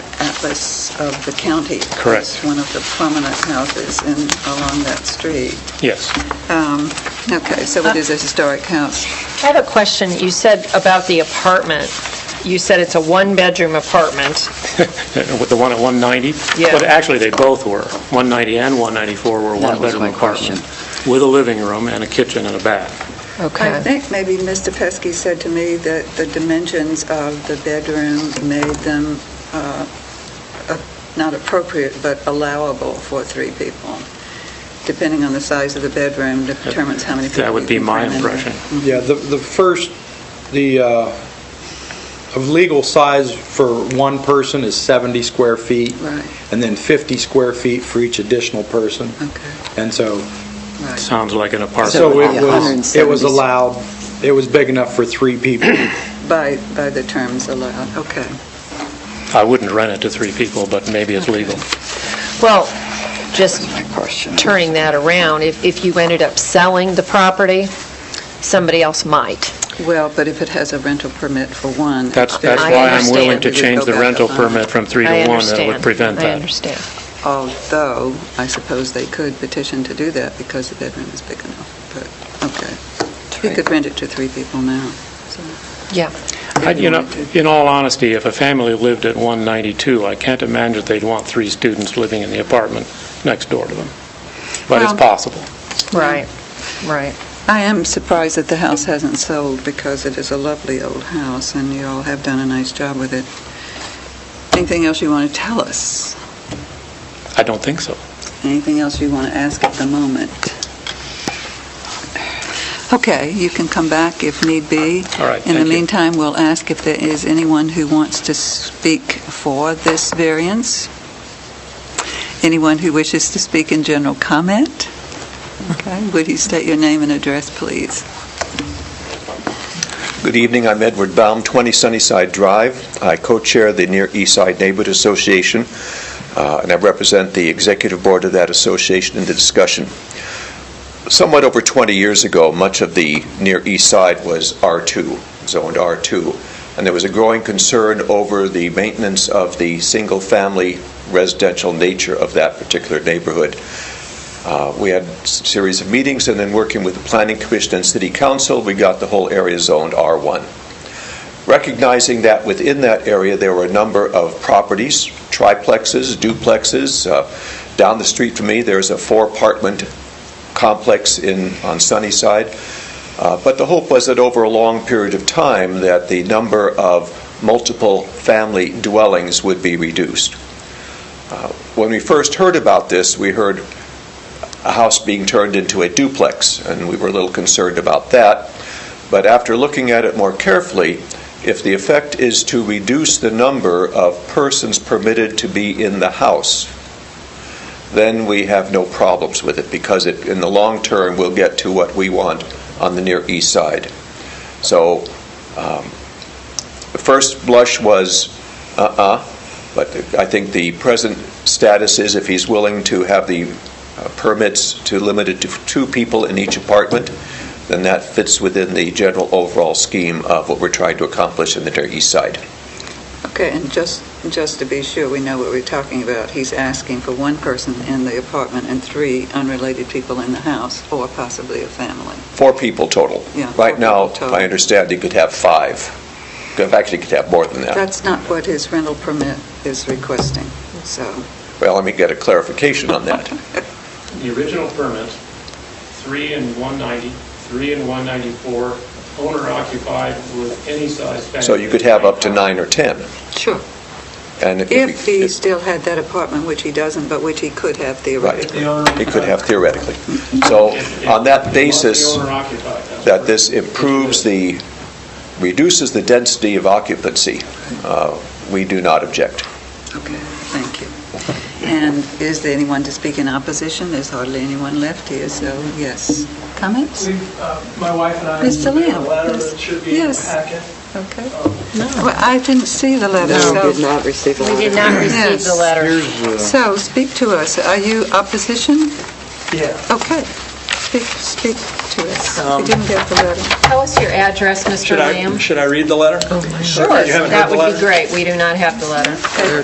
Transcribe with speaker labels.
Speaker 1: office of the county.
Speaker 2: Correct.
Speaker 1: It's one of the prominent houses in, along that street.
Speaker 2: Yes. uh,
Speaker 1: Um, Okay, so it is a historic house.
Speaker 3: I have a question. You said about the apartment, you said it's a one-bedroom apartment.
Speaker 2: With the one at 190?
Speaker 3: Yeah.
Speaker 2: But actually, they both were. 190 and 194 were
Speaker 4: That was
Speaker 2: one-bedroom
Speaker 4: my
Speaker 2: apartment. With a living room and a kitchen and a bath.
Speaker 1: I
Speaker 3: Okay.
Speaker 1: think maybe Mr. Pesky said to me that the dimensions of the bedroom made them uh, uh, not appropriate, but allowable for three people. Depending on the size of the bedroom determines how many people.
Speaker 2: That would
Speaker 1: you
Speaker 2: be
Speaker 1: can
Speaker 2: my
Speaker 1: cram in there.
Speaker 2: impression.
Speaker 5: Yeah, the, the first, the, uh, of legal size for one person is 70 square feet.
Speaker 1: Right.
Speaker 5: And then 50 square feet for each additional person.
Speaker 1: Okay,
Speaker 5: And so,
Speaker 1: right.
Speaker 2: Sounds like an
Speaker 5: so
Speaker 2: apartment.
Speaker 4: would be
Speaker 5: it was, it was
Speaker 4: 170.
Speaker 5: allowed, it was big enough for three people.
Speaker 1: By, by the terms allowed, okay.
Speaker 2: I wouldn't rent it to three people, but maybe it's legal.
Speaker 3: Well, just
Speaker 4: question.
Speaker 3: turning that around, if if you ended up selling the property, somebody else might.
Speaker 1: Well, but if it has a rental permit for one.
Speaker 2: That's
Speaker 1: then
Speaker 2: that's
Speaker 3: I
Speaker 2: why I'm willing
Speaker 3: understand.
Speaker 2: to
Speaker 1: We would
Speaker 2: change
Speaker 1: go
Speaker 2: the
Speaker 1: back
Speaker 2: rental
Speaker 1: up on
Speaker 2: permit from three to
Speaker 3: I
Speaker 2: one. That would
Speaker 3: understand.
Speaker 2: prevent
Speaker 3: I
Speaker 2: that.
Speaker 3: understand.
Speaker 1: Although, I suppose they could petition to do that because the bedroom is big enough, but, okay. You could rent it to three people now. so.
Speaker 3: Yeah.
Speaker 2: I- You know, in all honesty, if a family lived at 192, I can't imagine they'd want three students living in the apartment next door to them. But it's
Speaker 1: Well-
Speaker 2: possible.
Speaker 3: Right, right.
Speaker 1: I am surprised that the house hasn't sold because it is a lovely old house and you all have done a nice job with it. Anything else you want to tell us?
Speaker 2: I don't think so.
Speaker 1: Anything else you want to ask at the moment? Okay, you can come back if need be.
Speaker 2: All right,
Speaker 1: In the
Speaker 2: thank you.
Speaker 1: meantime, we'll ask if there is anyone who wants to speak for this variance. Anyone who wishes to speak in general comment? Okay, would you state your name and address, please?
Speaker 6: Good evening, I'm Edward Baum, 20 Sunnyside Drive. I co-chair the Near East Side Neighborhood Association, uh, and I represent the executive board of that association in the discussion. Somewhat over 20 years ago, much of the Near East Side was R2, zoned R2, and there was a growing concern over the maintenance of the single-family residential nature of that particular neighborhood. Uh, We had a series of meetings, and then working with the Planning Commission and City Council, we got the whole area zoned R1. Recognizing that within that area, there were a number of properties, triplexes, duplexes. Uh, Down the street from me, there's a four-apartment complex in, on Sunnyside. Uh, But the hope was that over a long period of time, that the number of multiple-family dwellings would be reduced. Uh, When we first heard about this, we heard a house being turned into a duplex, and we were a little concerned about that. But after looking at it more carefully, if the effect is to reduce the number of persons permitted to be in the house, then we have no problems with it, because it, in the long term, we'll get to what we want on the Near East Side. So, um, the first blush was, uh-uh, but I think the present status is if he's willing to have the uh, permits to limit it to two people in each apartment, then that fits within the general overall scheme of what we're trying to accomplish in the Near East Side.
Speaker 1: Okay, and just, just to be sure we know what we're talking about, he's asking for one person in the apartment and three unrelated people in the house, or possibly a family.
Speaker 6: Four people total.
Speaker 1: Yeah, four
Speaker 6: Right now,
Speaker 1: people total.
Speaker 6: I understand he could have five. Could- Actually, he could have more than that.
Speaker 1: That's not what his rental permit is requesting, so,
Speaker 6: Well, let me get a clarification on that.
Speaker 2: The original permits, three and 190, three and 194, owner occupied with any size family.
Speaker 6: So you could have up to nine or 10.
Speaker 1: sure.
Speaker 6: And if
Speaker 1: If
Speaker 6: we-
Speaker 1: he still had that apartment, which he doesn't, but which he could have
Speaker 6: Right.
Speaker 1: theoretically.
Speaker 6: It could have theoretically. So on that basis, that this improves the, reduces the density of occupancy, uh, we do not object.
Speaker 1: Okay, thank you. And is there anyone to speak in opposition? There's hardly anyone left here, so, yes. Comments?
Speaker 7: We've, uh, My wife and I
Speaker 1: Mr.
Speaker 7: submitted a
Speaker 1: Lamb,
Speaker 7: letter
Speaker 1: yes.
Speaker 7: that should be in the
Speaker 1: Yes.
Speaker 7: packet.
Speaker 1: Okay. Well, I didn't see the letter, so...
Speaker 4: No, did not receive a
Speaker 3: We did
Speaker 4: letter.
Speaker 3: not receive the
Speaker 1: Yes.
Speaker 3: letter.
Speaker 1: So, speak to us. Are you opposition?
Speaker 7: Yeah.
Speaker 1: Okay. Speak, speak to us. We didn't get the letter.
Speaker 3: Tell us your address, Mr.
Speaker 7: Should I, should I read the letter?
Speaker 3: Sure,
Speaker 7: You haven't heard
Speaker 3: that
Speaker 7: the
Speaker 3: would be
Speaker 7: letter?
Speaker 3: great. We do not have the letter.